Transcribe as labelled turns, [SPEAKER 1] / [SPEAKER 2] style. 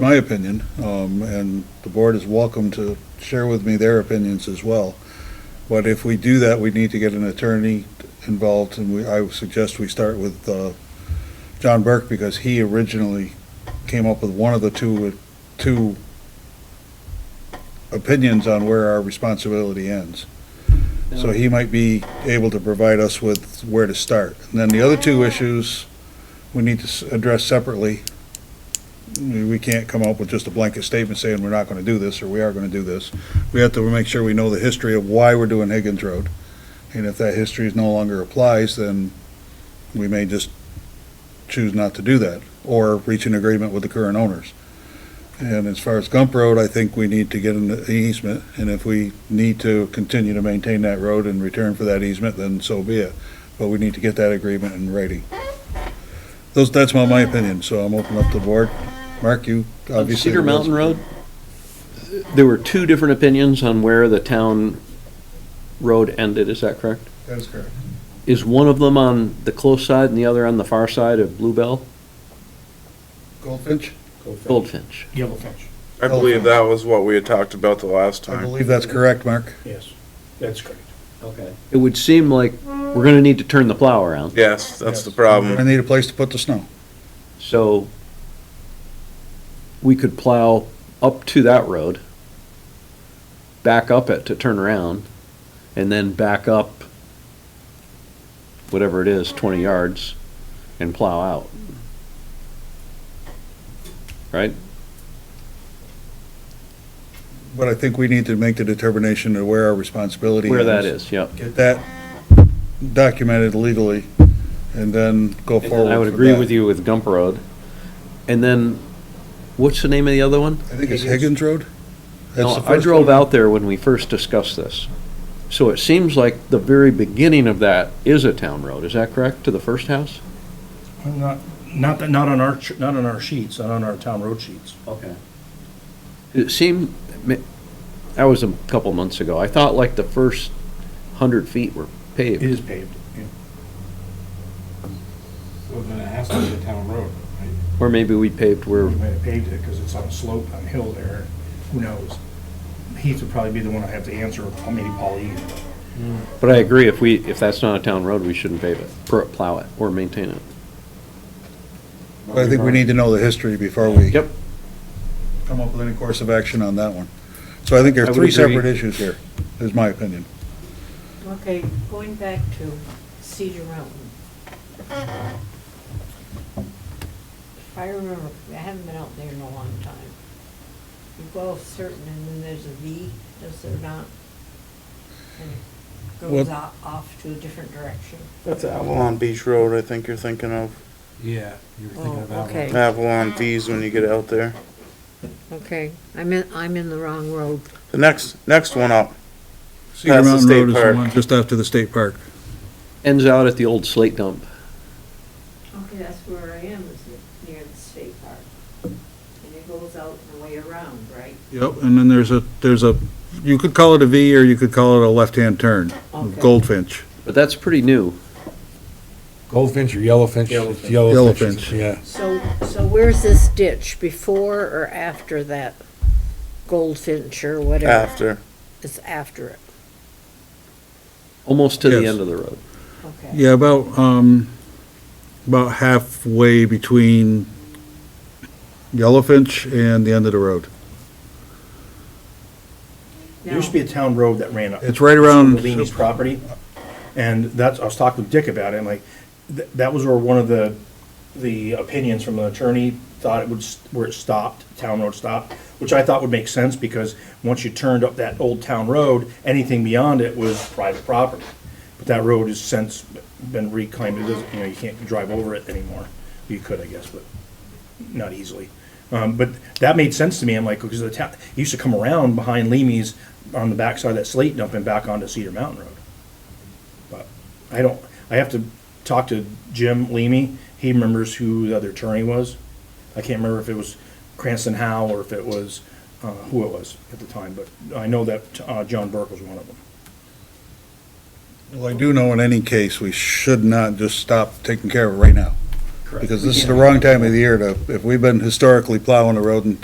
[SPEAKER 1] my opinion, um, and the board is welcome to share with me their opinions as well. But if we do that, we need to get an attorney involved, and we, I would suggest we start with, uh, John Burke, because he originally came up with one of the two, uh, two opinions on where our responsibility ends. So he might be able to provide us with where to start. And then the other two issues, we need to s- address separately. We we can't come up with just a blanket statement saying we're not gonna do this, or we are gonna do this. We have to make sure we know the history of why we're doing Higgins Road. And if that history is no longer applies, then we may just choose not to do that, or reach an agreement with the current owners. And as far as Gump Road, I think we need to get an easement, and if we need to continue to maintain that road in return for that easement, then so be it. But we need to get that agreement in writing. Those, that's my, my opinion, so I'm open up to the board. Mark, you
[SPEAKER 2] On
[SPEAKER 1] obviously.
[SPEAKER 2] Cedar Mountain Road, there were two different opinions on where the town road ended, is that correct?
[SPEAKER 1] That is correct.
[SPEAKER 2] Is one of them on the close side and the other on the far side of Bluebell,
[SPEAKER 1] Goldfinch?
[SPEAKER 2] Goldfinch?
[SPEAKER 3] Yellowfinch,
[SPEAKER 4] I believe that was what we had talked about the last
[SPEAKER 1] I
[SPEAKER 4] time.
[SPEAKER 1] believe that's correct, Mark.
[SPEAKER 3] yes, that's correct.
[SPEAKER 2] Okay. It would seem like we're gonna need to turn the plow around,
[SPEAKER 4] Yes, that's the
[SPEAKER 1] I
[SPEAKER 4] problem.
[SPEAKER 1] need a place to put the snow.
[SPEAKER 2] so we could plow up to that road, back up it to turn around, and then back up whatever it is, twenty yards, and plow out. Right?
[SPEAKER 1] But I think we need to make the determination of where our responsibility is.
[SPEAKER 2] Where that is, yeah.
[SPEAKER 1] Get that documented legally, and then go forward
[SPEAKER 2] I would
[SPEAKER 1] with
[SPEAKER 2] agree
[SPEAKER 1] that.
[SPEAKER 2] with you with Gump Road. And then, what's the name of the other one?
[SPEAKER 1] I think it's Higgins Road? That's
[SPEAKER 2] No,
[SPEAKER 1] the
[SPEAKER 2] I
[SPEAKER 1] first
[SPEAKER 2] drove
[SPEAKER 1] one.
[SPEAKER 2] out there when we first discussed this. So it seems like the very beginning of that is a town road, is that correct, to the first house?
[SPEAKER 3] Well, Not, not, that- not on our, ch- not on our sheets, not on our town road sheets.
[SPEAKER 2] Okay. It seemed, ma- that was a couple months ago, I thought like the first hundred feet were
[SPEAKER 3] It
[SPEAKER 2] paved.
[SPEAKER 3] is paved, yeah.
[SPEAKER 5] Well, then it has to be a town road, right?
[SPEAKER 2] Or maybe we paved where,
[SPEAKER 3] We might have paved it because it's on a slope on a hill there, who knows? Heath would probably be the one I have to answer, or maybe Paul E.
[SPEAKER 2] but I agree, if we, if that's not a town road, we shouldn't pave it, pr- plow it, or maintain it.
[SPEAKER 1] But I think we need to know the history before we.
[SPEAKER 2] Yep.
[SPEAKER 1] Come up with any course of action on that one. So I think there
[SPEAKER 2] I
[SPEAKER 1] are
[SPEAKER 2] would
[SPEAKER 1] three
[SPEAKER 2] agree.
[SPEAKER 1] separate issues here, is my opinion.
[SPEAKER 6] Okay, going back to Cedar Mountain. If I remember, I haven't been out there in a long time. You go off certain and then there's a V, is there not? And it goes
[SPEAKER 1] Well-
[SPEAKER 6] o- off to a different direction.
[SPEAKER 4] That's Avalon Beach Road, I think you're thinking of.
[SPEAKER 5] Yeah, you were thinking
[SPEAKER 6] Oh,
[SPEAKER 5] of that one.
[SPEAKER 6] okay.
[SPEAKER 4] Avalon V's when you get out there.
[SPEAKER 6] Okay, I'm in, I'm in the wrong road.
[SPEAKER 4] The next, next one up.
[SPEAKER 1] Cedar
[SPEAKER 4] Past the
[SPEAKER 1] Mountain
[SPEAKER 4] state
[SPEAKER 1] Road is the
[SPEAKER 4] park.
[SPEAKER 1] one just after the state park.
[SPEAKER 2] Ends out at the old slate dump.
[SPEAKER 6] Okay, that's where I am, is near the state park. And it goes out the way around, right?
[SPEAKER 1] Yep, and then there's a, there's a, you could call it a V or you could call it a left-hand turn,
[SPEAKER 6] Okay.
[SPEAKER 1] Goldfinch.
[SPEAKER 2] But that's pretty new.
[SPEAKER 5] Goldfinch or yellowfinch? It's
[SPEAKER 1] Yellowfinch.
[SPEAKER 5] Yeah.
[SPEAKER 6] So, so where's this ditch, before or after that goldfinch or whatever?
[SPEAKER 4] After.
[SPEAKER 6] It's after it,
[SPEAKER 2] Almost to the
[SPEAKER 1] Yes.
[SPEAKER 2] end of the road.
[SPEAKER 6] okay.
[SPEAKER 1] Yeah, about, um, about halfway between Yellowfinch and the end of the road.
[SPEAKER 3] There used to be a town road that ran up.
[SPEAKER 1] It's right around-
[SPEAKER 3] Leany's property, and that's, I was talking with Dick about it, and like, th- that was where one of the, the opinions from the attorney thought it would, s- where it stopped, town road stopped, which I thought would make sense, because once you turned up that old town road, anything beyond it was private property. But that road has since been reclaimed, it doesn't, you know, you can't drive over it anymore. You could, I guess, but not easily. Um, but that made sense to me. I'm like, because the town it used to come around behind Leamy's on the backside of that slate dump and back onto Cedar Mountain Road. But I don't. I have to talk to Jim Leamy. He remembers who the other attorney was. I can't remember if it was Cranston Howe or if it was uh, who it was at the time. But I know that uh, John Burke was one of them.
[SPEAKER 1] Well, I do know in any case, we should not just stop taking care of it right now. Because this is the wrong time of the year to, if we've been historically plowing the road and